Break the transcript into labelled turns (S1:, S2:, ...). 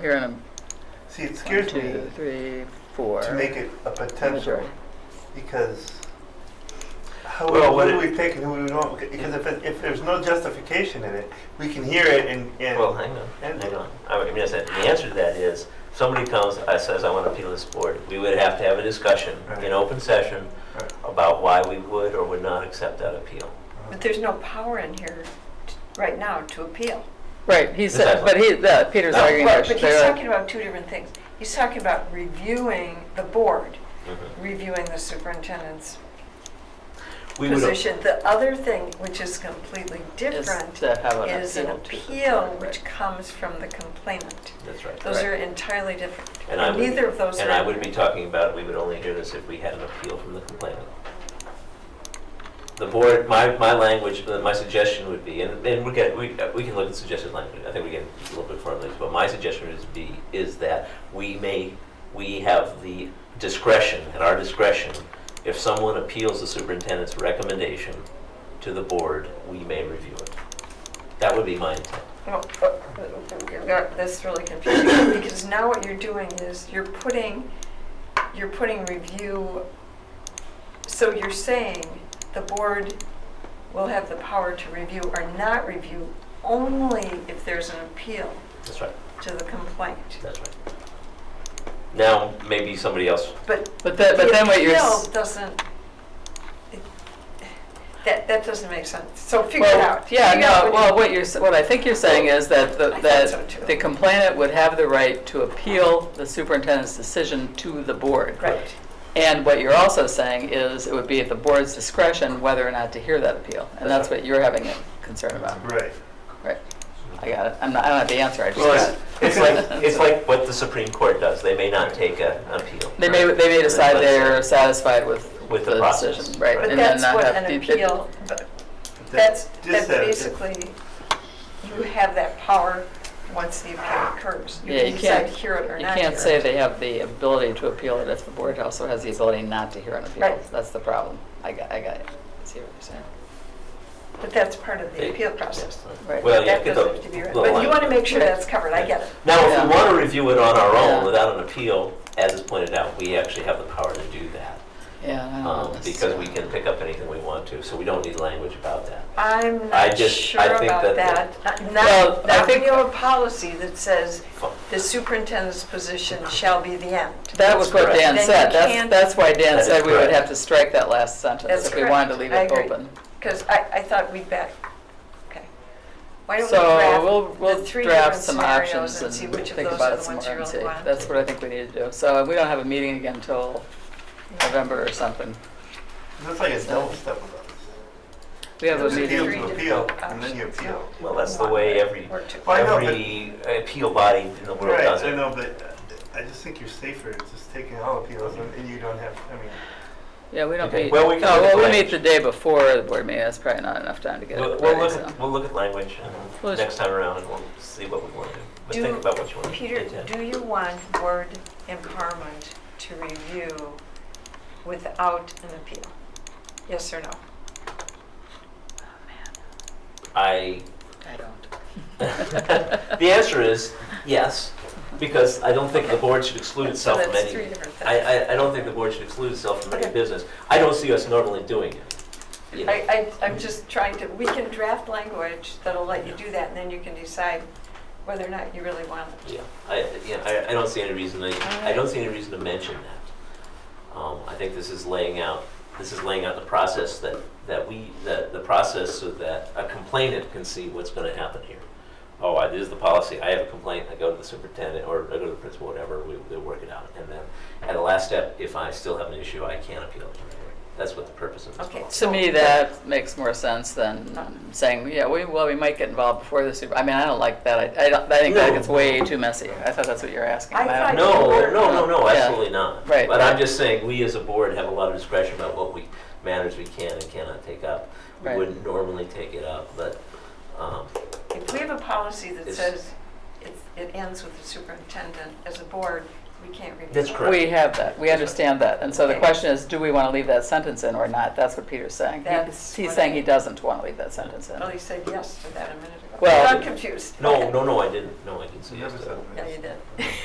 S1: Here in them.
S2: See, it
S1: One,
S2: scares me
S1: two, three, four.
S2: to make it a potential
S1: Majority.
S2: because how
S3: Well,
S2: who
S3: what
S2: do
S3: it-
S2: we pick and who we don't? Because if, it, if there's no justification in it, we can hear it and, and
S3: Well, hang on,
S2: and-
S3: hang on. I mean, that's it. the answer to that is, somebody comes, I says, I want to appeal this board. We would have to have a discussion
S2: Right.
S3: in open session
S2: Right.
S3: about why we would or would not accept that appeal.
S4: But there's no power in here t- right now to appeal.
S1: Right, he said,
S3: Exactly.
S1: but he, the, Peter's
S3: No.
S1: arguing there.
S4: But but
S1: They're
S4: he's
S1: like-
S4: talking about two different things. He's talking about reviewing the board, reviewing the superintendent's
S3: We would,
S4: position. The other thing, which is completely
S1: is
S4: different,
S1: to have an
S4: is an
S1: appeal to the
S4: appeal
S1: court,
S4: which comes from the complainant.
S3: that's right.
S4: Those
S1: Right.
S4: are entirely different.
S3: And I
S4: And
S3: would-
S4: neither of those
S3: And I
S4: are,
S3: would be talking about, we would only hear this if we had an appeal from the complainant. The board, my, my language, uh, my suggestion would be, and, and we can, we, uh, we can look at suggested language, I think we can a little bit further, later, but my suggestion is be, is that we may, we have the discretion, at our discretion, if someone appeals the superintendent's recommendation to the board, we may review it. That would be my intent.
S4: no, uh, you've got this really confusing, because now what you're doing is you're putting, you're putting review, so you're saying the board will have the power to review or not review only if there's an appeal
S3: That's right,
S4: to the complaint.
S3: that's right. Now, maybe somebody else
S4: But
S1: But that, but
S4: the
S1: then what you're,
S4: appeal
S1: s-
S4: doesn't, it- that, that doesn't make sense. So figure it
S1: well,
S4: out.
S1: yeah,
S4: Figure out
S1: no,
S4: what you-
S1: well, what you're, s- what I think you're saying is that, the
S4: I thought so,
S1: that
S4: too.
S1: the complainant would have the right to appeal the superintendent's decision to the board.
S4: Right.
S1: And what you're also saying is it would be at the board's discretion whether or not to hear that appeal. And that's what you're having a concern about.
S2: right.
S1: Right. I got it. I'm not, I don't have the answer. I just
S3: Well,
S1: got it.
S3: it's, it's like, it's like what the Supreme Court does, they may not take a- an appeal.
S1: They may, they may decide they're satisfied with
S3: With the
S1: the
S3: process.
S1: decision, right?
S4: But
S1: and then
S4: that's
S1: not
S4: what
S1: have
S4: an
S1: to- it-
S4: appeal, but
S2: That-
S4: That's, that's
S2: just that-
S4: basically, you have that power once the appeal occurs.
S1: Yeah, you
S4: can
S1: can't,
S4: decide hear it or
S1: you
S4: not
S1: can't
S4: hear
S1: say
S4: it.
S1: they have the ability to appeal it if the board also has the ability not to hear an appeal.
S4: Right.
S1: That's the problem. I got, I got it. I See what you're saying?
S4: But that's part of the appeal process.
S1: Right.
S3: Well, yeah,
S4: That
S3: get
S4: doesn't
S3: the.
S4: have to be right.
S3: the
S4: But
S3: line.
S4: you want to make sure
S1: Right.
S4: that's covered, I get it.
S3: Now, if
S1: Yeah.
S3: we want to review it on our
S1: Yeah.
S3: own without an appeal, as is pointed out, we actually have the power to do that.
S1: Yeah. I don't
S3: um,
S1: know.
S3: Because we can pick up anything we want to, so we don't need language about that.
S4: I'm
S3: I
S4: not
S3: just-
S4: sure
S3: I think
S4: about
S3: that
S4: that. Not-
S1: Well,
S4: Not,
S1: I
S4: not when
S1: think-
S4: you have a policy that says
S3: Fine.
S4: the superintendent's position shall be the end.
S1: That was what
S3: That's
S1: Dan
S4: correct.
S1: said.
S4: Then you
S1: That's,
S4: can't-
S1: that's why Dan
S3: That is
S1: said we would
S3: correct.
S1: have to strike that last sentence
S4: That's
S1: if we wanted to
S4: correct.
S1: leave
S4: I
S1: it
S4: agree.
S1: open.
S4: Because I, I thought we'd bet, okay. Why don't
S1: So we'll,
S4: we draft
S1: we'll
S4: the three
S1: draft
S4: different
S1: some
S4: scenarios
S1: options
S4: and
S1: and
S4: see which of
S1: think
S4: those
S1: about
S4: are
S1: it
S4: the
S1: some
S4: ones
S1: more
S4: you
S1: and see.
S4: really want?
S1: That's what I think we need to do. So we don't have a meeting again until November or something.
S2: That's like a double step with us.
S1: We have a
S4: Those are
S2: Appeal
S1: meeting.
S4: three
S2: to appeal,
S4: different
S2: and then you
S4: options,
S2: appeal.
S3: Well, that's the way every,
S4: Or two.
S2: Well, I know,
S3: every appeal body in the world
S2: Right,
S3: does
S2: I
S3: it.
S2: know, but uh, I just think you're safer just taking all appeals and, and you don't have, I mean,
S1: Yeah, we don't
S3: Okay,
S1: meet.
S3: well, we can
S1: No,
S3: look at
S1: Well, we meet
S3: language.
S1: the day before the board meeting. That's probably not enough time to get
S3: We'll
S1: it
S3: we'll
S1: ready,
S3: look,
S1: so.
S3: at- we'll look at language and
S1: Well, it's-
S3: next time around, and we'll see what we want to do. But
S4: Do-
S3: think about what you want to
S4: Peter,
S3: intend.
S4: do you want word empowerment to review without an appeal? Yes or no?
S3: I
S1: I don't.
S3: The answer is yes, because I don't think the board should exclude
S4: So
S3: itself from
S4: that's three
S3: any,
S4: different
S3: I,
S4: things.
S3: I, I don't think the board should exclude itself from any
S4: Okay.
S3: business. I don't see us normally doing it. you know.
S4: I, I, I'm just trying to, we can draft language that'll let you do that, and then you can decide whether or not you really want it.
S3: Yeah, I, yeah, I, I don't see any reason, I, I don't see any reason to mention that. Um, I think this is laying out, this is laying out the process that, that we, that the process so that a complainant can see what's gonna happen here. Oh, I, this is the policy, I have a complaint, I go to the superintendent, or I go to the principal, whatever, we, they work it out. And then, at the last step, if I still have an issue, I can appeal it. That's what the purpose of this
S4: Okay.
S3: policy.
S1: To me, that makes more sense than um, saying, yeah, we, well, we might get involved before the super, I mean, I don't like that. I, I don't, I think that
S3: No.
S1: gets way too messy. I thought that's what you were asking.
S4: I
S1: but don't-
S4: thought-
S3: No, no, no, no,
S1: Yeah.
S3: absolutely not.
S1: Right.
S3: But I'm just saying, we as a board have a lot of discretion about what we, matters we can and cannot take up. We
S1: Right.
S3: wouldn't normally take it up, but, um,
S4: If we have a policy that
S3: It's-
S4: says it, it ends with the superintendent as a board, we can't review.
S3: That's
S4: it.
S3: correct.
S1: We have that, we
S3: That's right.
S1: understand that, and so the
S4: Okay.
S1: question is, do we want to leave that sentence in or not? That's what Peter's saying. He-
S4: That's
S1: He's
S4: what
S1: saying
S4: I- Oh,
S1: he doesn't want to leave that sentence in.
S4: Well, you said yes to that a minute ago.
S1: Well-
S4: I'm confused.
S3: No, no, no, I didn't, no, I didn't say
S2: You
S3: yes
S2: never
S3: to
S2: said
S3: that.
S2: that.
S4: Yeah, you did.